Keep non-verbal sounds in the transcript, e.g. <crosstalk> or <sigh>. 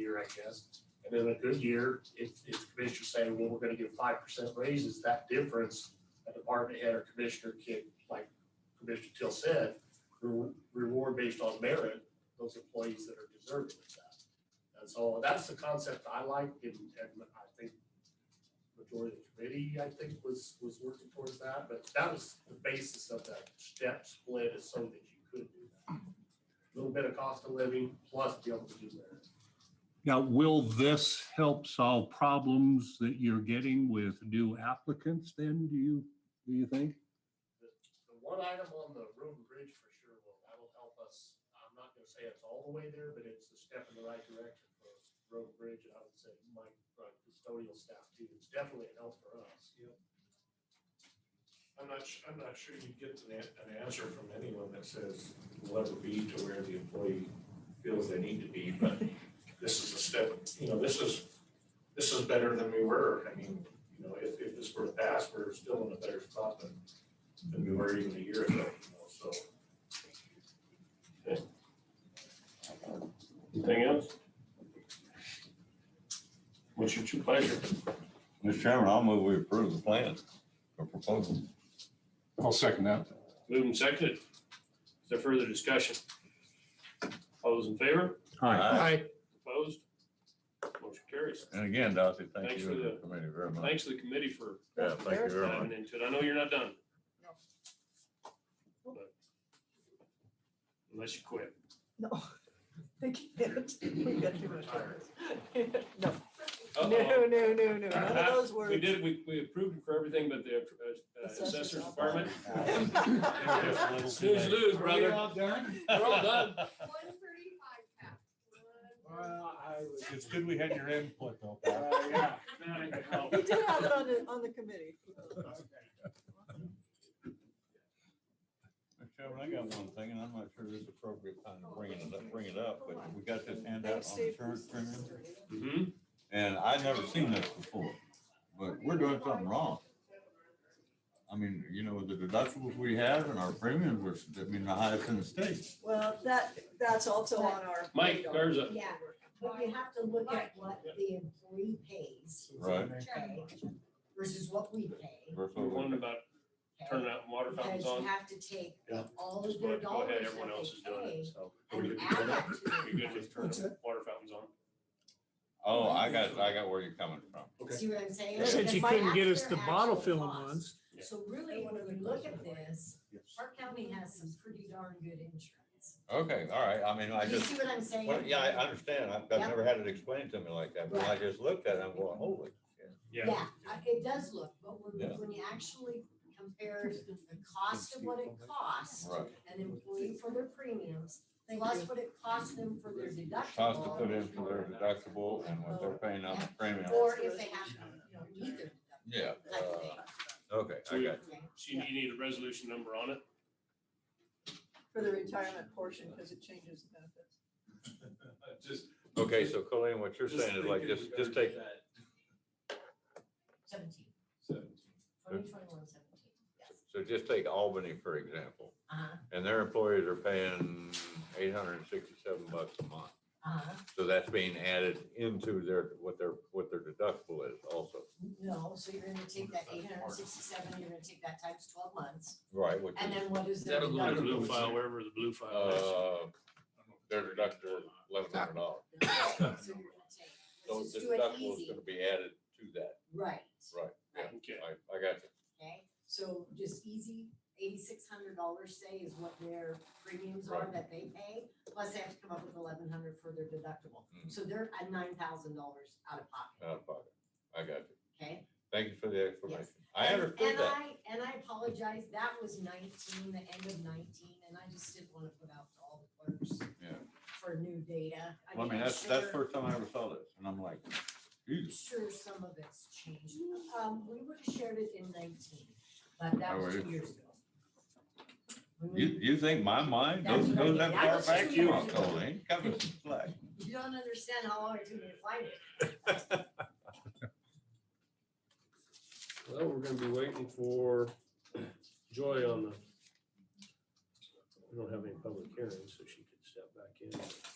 I guess. And then a good year, if, if commissioners say, well, we're gonna give five percent raises, that difference, a department head or commissioner can, like Commissioner Till said, re- reward based on merit, those employees that are deserving of that. And so that's the concept I like and, and I think majority of the committee, I think, was, was working towards that, but that was the basis of that step split is so that you could do that. Little bit of cost of living plus be able to do merit. Now, will this help solve problems that you're getting with new applicants then, do you, do you think? the one item on the road and bridge for sure will, that'll help us. I'm not gonna say it's all the way there, but it's a step in the right direction for road and bridge, and I would say Mike, uh, custodial staff too. It's definitely a help for us. I'm not, su- I'm not sure you get an, a- an answer from anyone that says we'll ever be to where the employee feels they need to be, but this is a step, you know, this is, this is better than we were. I mean, you know, if, if this were to pass, we're still in a better spot than, than we were even a year ago, you know, so. Okay. Anything else? What's your true pleasure? Mr. Chairman, I'll move we approve the plan or proposal. I'll second that. Moved and seconded. Is there further discussion? All those in favor? Hi, Opposed? Motion carries. And again, Darcy, thank Thanks you for and the- the committee very much. Thanks to the committee for Yeah, thank you very much. diving into it. I know you're not done. But- Unless you quit. No, <laughs> they can't. We got too much Retired. work. <laughs> No, no, Uh-oh. no, no, no, none of those Uh, We words. did, <laughs> we, we approved it for everything but the uh, assessor's department. Snooze lose, brother. all done? We're all done. One thirty-five cap. Well, I was. It's good we had your input though. Uh, Pat. <laughs> yeah. <laughs> We did have it on the, on the committee. Mr. Chairman, I got one thing, and I'm not sure this is appropriate time to bring it up, bring it up, but we got this handout Thanks, on Steve. insurance premium, Mhm. and I've never seen this before. But we're doing something wrong. I mean, you know, the deductibles we have and our premiums were, I mean, the highest in the state. Well, that, that's also on our. Mike radar. Garza. Yeah, but you have to look at what the employee pays Right. okay, versus what we pay. Versus We what wondered we- about okay? turning out water Because fountains you on. have to take Yeah. all Just of go their ahead- go ahead, dollars everyone else is that doing they it, so. pay and <laughs> We're add that good to their with turning water fountains on. Oh, I got, I got where you're coming from. Okay. See what I'm saying? Since Because you my- couldn't get that's us the their bottle actual filling cost. ones. Yeah. So really, when we look at this, Park County has some pretty darn good insurance. Okay, all right, I mean, I You just. see what I'm saying? Well, yeah, I understand. I've, I've never had it explained to me like that, but I just looked at it, I'm going, holy. shit. Yeah, I- it does look, but when, Yeah. when you actually compare the cost of what it costs Right. an employee for their premiums, plus what it costs them for their Cost to put deductible. in for their deductible and what they're paying on the premium. Or if they have, you know, need their Yeah, deductible, type of thing. Uh, okay, I got, Okay. So you need a resolution number on it? For the retirement portion, because it changes the benefits. Just. you. okay, so Colleen, what you're saying is like, just, just take, Seventeen, twenty so twenty-one seventeen, yes. just take Albany, for example, Uh-huh, and their employees are paying eight hundred and sixty-seven bucks a month. uh-huh. So that's being added into their, what their, what their deductible is also. No, so you're gonna take that eight hundred and sixty-seven, you're gonna take that times twelve months, Right, which and is, then what is their That'll go to the deductible? blue file, wherever the blue file is. uh, their deductible is eleven hundred dollars. <coughs> So you're gonna take, So let's the just do it deductible is easy, gonna be added to that, right, right, yeah, Okay. I, I got you. okay? So just easy, eighty-six hundred dollars, say, is what their premiums are Right. that they pay, plus they have to come up with eleven hundred for their deductible. Mhm. So they're at nine thousand dollars out of pocket, Out of pocket, I got you, okay? thank you for the explanation, Yes. I And- understood and that, I- And I apologize, that was nineteen, the end of nineteen, and I just didn't want to put out to all the clerks Yeah. for new data. I mean, I'm that's, that's the sure- first time I ever saw this, and I'm like, Jesus. Sure, some of it's changed. Um, we would have shared it in nineteen, but that Oh, was really? two years ago. We You, would- you think my mind That's goes, what I goes that mean. I far was back? two You years ago. ain't coming to play. You don't understand how long it took me to find it. Well, we're gonna be waiting for Joy on the. We don't have any public hearings, so she could step back in.